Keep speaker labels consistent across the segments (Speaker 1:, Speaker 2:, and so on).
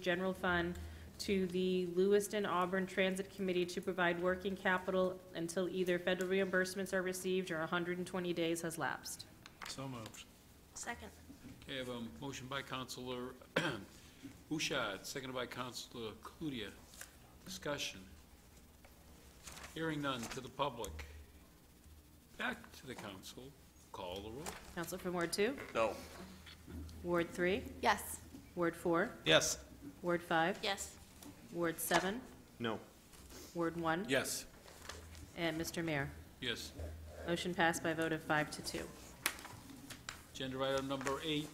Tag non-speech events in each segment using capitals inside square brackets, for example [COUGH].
Speaker 1: General Fund to the Lewiston Auburn Transit Committee to provide working capital until either federal reimbursements are received or 120 days has lapsed.
Speaker 2: So moved.
Speaker 3: Second.
Speaker 2: Okay, I have a motion by Counselor [CLEARS THROAT] Bouchard, seconded by Counselor Cludia. Discussion. Hearing none to the public. Back to the council. Call the roll.
Speaker 1: Counsel from Ward 2?
Speaker 4: No.
Speaker 1: Ward 3?
Speaker 3: Yes.
Speaker 1: Ward 4?
Speaker 4: Yes.
Speaker 1: Ward 5?
Speaker 3: Yes.
Speaker 1: Ward 7?
Speaker 4: No.
Speaker 1: Ward 1?
Speaker 4: Yes.
Speaker 1: And Mr. Mayor.
Speaker 2: Yes.
Speaker 1: Motion passed by a vote of five to two.
Speaker 2: Agenda item number eight.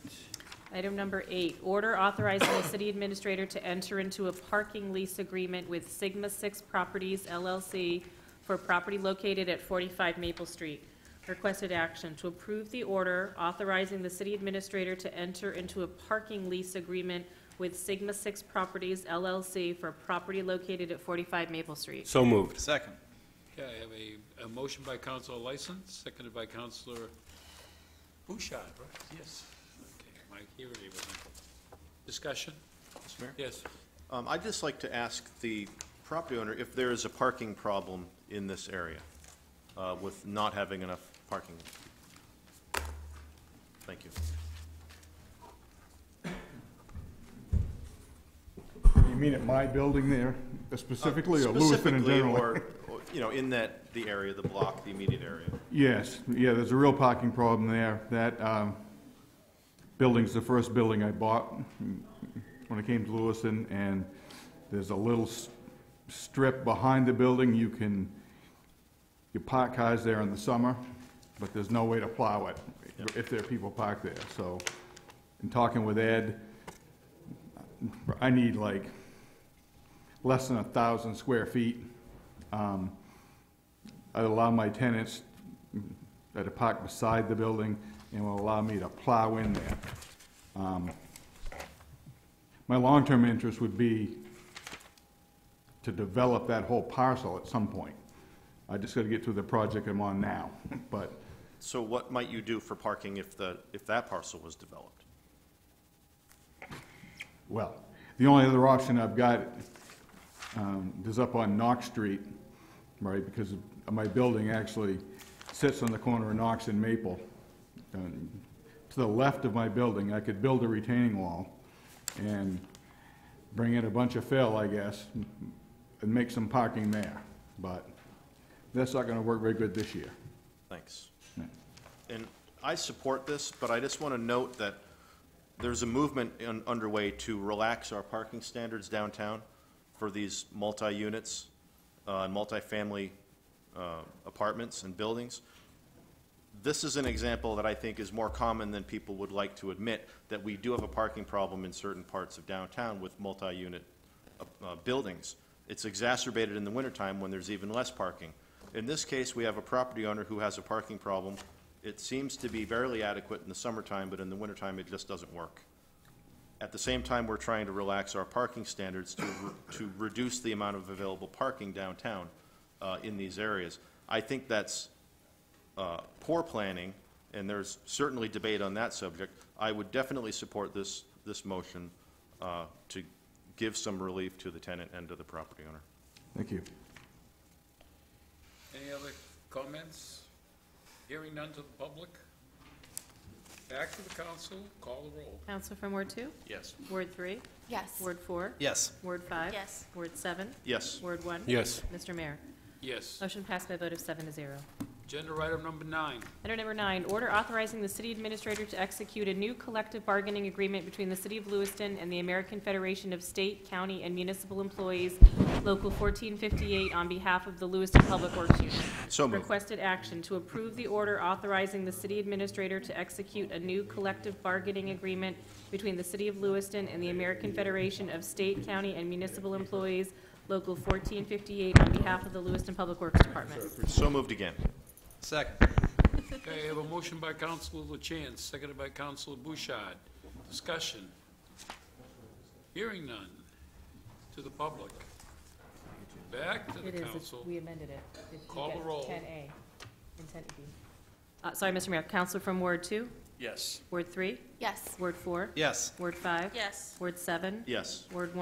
Speaker 1: Item number eight, order authorizing the city administrator to enter into a parking lease agreement with Sigma Six Properties LLC for property located at 45 Maple Street. Requested action to approve the order authorizing the city administrator to enter into a parking lease agreement with Sigma Six Properties LLC for property located at 45 Maple Street.
Speaker 5: So moved.
Speaker 4: Second.
Speaker 2: Okay, I have a, a motion by Counselor Lyson, seconded by Counselor Bouchard, right? Yes. Okay, my hearing everything. Discussion?
Speaker 6: Mr. Mayor?
Speaker 2: Yes.
Speaker 6: Um, I'd just like to ask the property owner if there is a parking problem in this area uh, with not having enough parking. Thank you.
Speaker 7: You mean at my building there specifically, or Lewiston in
Speaker 6: Specifically,
Speaker 7: general?
Speaker 6: or, or, you know, in that, the area, the block, the immediate area.
Speaker 7: Yes, yeah, there's a real parking problem there. That um, building's the first building I bought when I came to Lewiston, and there's a little s- strip behind the building. You can, you park cars there in the summer, but there's no way to plow it if there are people parked there. So, in talking with Ed, I need like less than a thousand square feet. Um, I'd allow my tenants that are parked beside the building and will allow me to plow in there. Um, My long-term interest would be to develop that whole parcel at some point. I just gotta get through the project I'm on now, [LAUGHS] but
Speaker 6: So what might you do for parking if the, if that parcel was developed?
Speaker 7: Well, the only other option I've got um, is up on Knox Street, right, because my building actually sits on the corner of Knox and Maple. Um, To the left of my building, I could build a retaining wall and bring in a bunch of fill, I guess, and make some parking there, but that's not gonna work very good this year.
Speaker 6: Thanks. And I support this, but I just want to note that there's a movement in- underway to relax our parking standards downtown for these multi-units, uh, and multifamily uh, apartments and buildings. This is an example that I think is more common than people would like to admit, that we do have a parking problem in certain parts of downtown with multi-unit uh, uh, buildings. It's exacerbated in the wintertime when there's even less parking. In this case, we have a property owner who has a parking problem. It seems to be barely adequate in the summertime, but in the wintertime, it just doesn't work. At the same time, we're trying to relax our parking standards to, to reduce the amount of available parking downtown uh, in these areas. I think that's uh, poor planning, and there's certainly debate on that subject. I would definitely support this, this motion uh, to give some relief to the tenant and to the property owner.
Speaker 7: Thank you.
Speaker 2: Any other comments? Hearing none to the public? Back to the council, call the roll.
Speaker 1: Counsel from Ward 2?
Speaker 4: Yes.
Speaker 1: Ward 3?
Speaker 3: Yes.
Speaker 1: Ward 4?
Speaker 4: Yes.
Speaker 1: Ward 5?
Speaker 3: Yes.
Speaker 1: Ward 7?
Speaker 6: Yes,
Speaker 1: Ward 1?
Speaker 5: Yes.
Speaker 1: Mr. Mayor.
Speaker 2: Yes.
Speaker 1: Motion passed by a vote of seven to zero.
Speaker 2: Agenda item number nine.
Speaker 1: Item number nine, order authorizing the city administrator to execute a new collective bargaining agreement between the city of Lewiston and the American Federation of State, County, and Municipal Employees, Local 1458, on behalf of the Lewiston Public Works Union.
Speaker 6: So moved.
Speaker 1: Requested action to approve the order authorizing the city administrator to execute a new collective bargaining agreement between the city of Lewiston and the American Federation of State, County, and Municipal Employees, Local 1458, on behalf of the Lewiston Public Works Department.
Speaker 6: so moved again.
Speaker 4: Second.
Speaker 2: Okay, I have a motion by Counselor LaChance, seconded by Counselor Bouchard. Discussion. Hearing none to the public. Back to the
Speaker 1: It is, It's-
Speaker 2: council.
Speaker 1: we amended it. If you
Speaker 2: Call the
Speaker 1: get
Speaker 2: roll.
Speaker 1: 10A and 10B. Uh, Sorry, Mr. Mayor, Counselor from Ward 2,
Speaker 4: Yes.
Speaker 1: Ward 3,
Speaker 3: Yes.
Speaker 1: Ward 4,
Speaker 4: Yes.
Speaker 1: Ward 5,
Speaker 3: Yes.
Speaker 1: Ward 7,
Speaker 6: Yes.
Speaker 1: Ward 1.